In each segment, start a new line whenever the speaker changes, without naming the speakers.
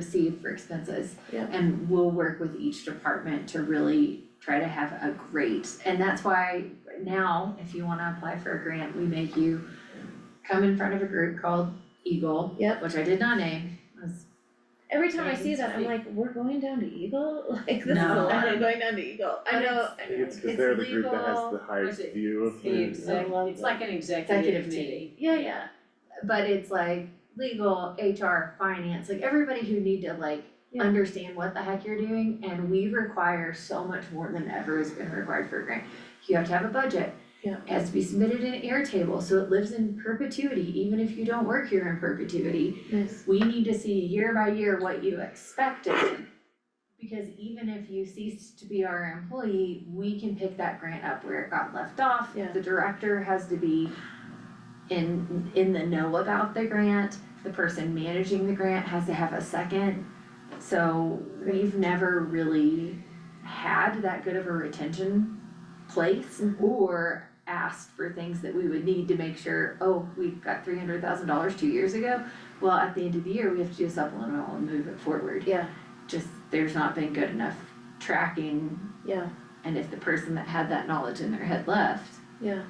receive for expenses.
Yeah.
And we'll work with each department to really try to have a great, and that's why now, if you wanna apply for a grant, we make you come in front of a group called Eagle.
Yep.
Which I did not name, was
Every time I see that, I'm
Agency.
like, we're going down to Eagle, like this is a
No.
lot of going down to Eagle, I
But
know,
it's-
I
I think
know.
it's
It's
cause they're the group that
legal,
has the highest
it-
view of
It's the
things.
exec-
I love
it's
that.
like an
Executive
executive
team.
committee.
Yeah, yeah,
but it's like legal, HR, finance, like everybody who need to like
Yeah.
understand what the heck you're doing, and we require so much more than ever has been required for a grant. You have to have a budget.
Yeah.
It has to be submitted in Airtable, so it lives in perpetuity, even if you don't work here in perpetuity.
nice,
We need to see year by year what you expected. Because even if you cease to be our employee, we can pick that grant up where it got left off.
Yeah.
The director has to be in, in the know about the grant, the person managing the grant has to have a second. So we've never really had that good of a retention place
Mhm.
or asked for things that we would need to make sure, oh, we got three hundred thousand dollars two years ago. Well, at the end of the year, we have to do a supplemental and move it forward.
yeah,
Just, there's not been good enough tracking,
yeah,
and if the person that had that knowledge in their head left,
yeah.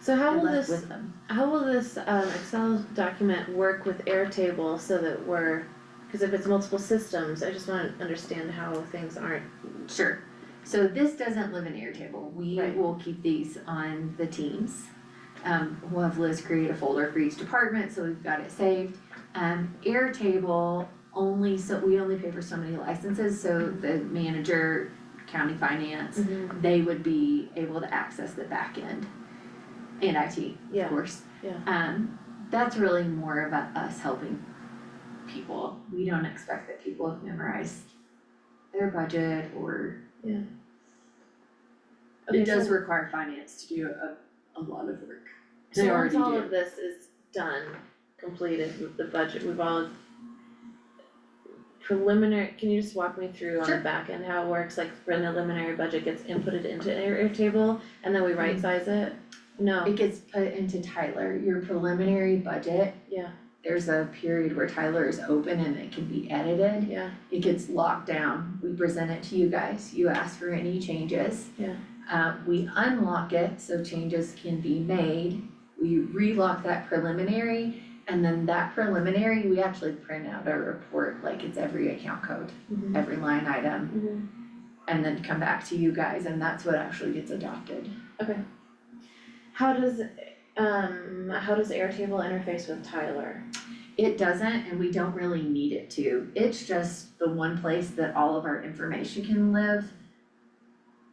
So
it
how will
left
this,
with them.
how will this um Excel document work with Airtable so that we're, cause if it's multiple systems, I just wanna understand how things aren't,
Sure, so this doesn't live in Airtable, we
Right.
will keep these on the teams. Um, we'll have Liz create a folder for each department, so we've got it saved. Um, Airtable only, so we only pay for so many licenses, so the manager, county finance, they would be able to access the back end and IT, of
yeah,
course.
yeah.
Um, that's really more of a- us helping people. We don't expect that people have memorized their budget or
Okay,
It
so-
does require finance to do a, a lot of work.
So
They
once
already
all of
do.
this is done, completed with the budget, we've all preliminary, can you just walk me through on the
Sure.
back end how it works, like when the preliminary budget gets inputted into Air Airtable and then we
Mm-hmm.
right size it? No,
it gets put into Tyler, your preliminary budget.
yeah,
There's a period where Tyler is open and it can be edited.
yeah,
It gets locked down. We present it to you guys. You ask for any changes.
Yeah.
Uh, we unlock it so changes can be made. We relock that preliminary and then that preliminary, we actually print out a report like it's every account code,
Mm-hmm.
mhm,
every line item,
mhm,
and then come back to you guys and that's what actually gets adopted.
okay. How does, um, how does Airtable interface with Tyler?
It doesn't, and we don't really need it to. It's just the one place that all of our information can live.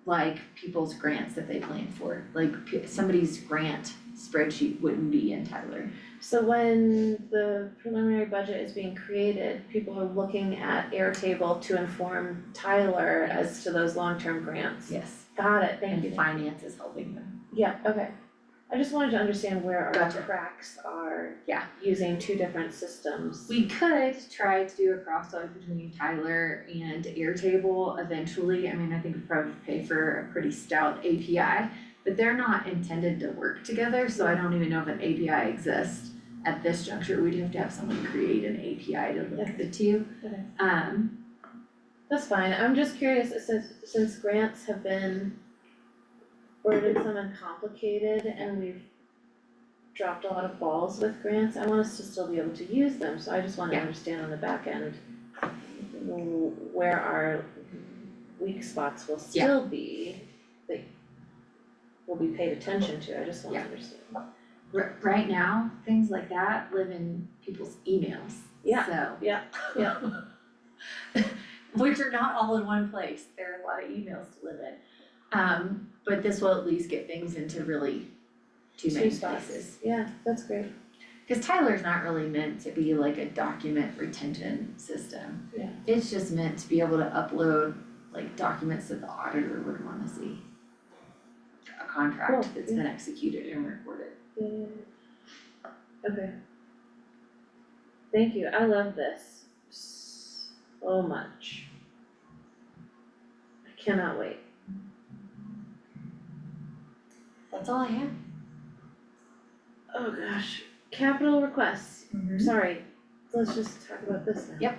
Like people's grants that they plan for, like p- somebody's grant spreadsheet wouldn't be in Tyler.
So when the preliminary budget is being created, people are looking at Airtable to inform Tyler as to those long-term grants.
Yes.
Got it, thank you.
And finance is helping them.
Yeah, okay. I just wanted to understand where our
Gotcha.
cracks are.
Yeah.
Using two different systems.
We could try to do a crossover between Tyler and Airtable eventually. I mean, I think we probably pay for a pretty stout API, but they're not intended to work together, so I don't even know if an API exists. At this juncture, we'd have to have someone create an API to link the two.
Okay.
Um,
That's fine, I'm just curious, since since grants have been worded some and complicated and we've dropped a lot of balls with grants, I want us to still be able to use them, so I just wanna
Yeah.
understand on the back end w- where our weak spots will
Yeah.
still be, that will be paid attention to, I just wanna
Yeah.
understand.
r- right now, things like that live in people's emails,
Yeah,
so.
yeah, yeah.
Which are not all in one place, there are a lot of emails to live in. Um, but this will at least get things into really two
Two
main places.
spots, yeah, that's great.
Cause Tyler's not really meant to be like a document retention system.
Yeah.
It's just meant to be able to upload like documents that the auditor would wanna see. A
Cool,
contract that's been executed and recorded.
Yeah, yeah, yeah. Okay. Thank you, I love this so much. I cannot wait.
That's all I have.
Mm-hmm. Oh gosh, capital requests, sorry, let's just talk about this now.
Yep.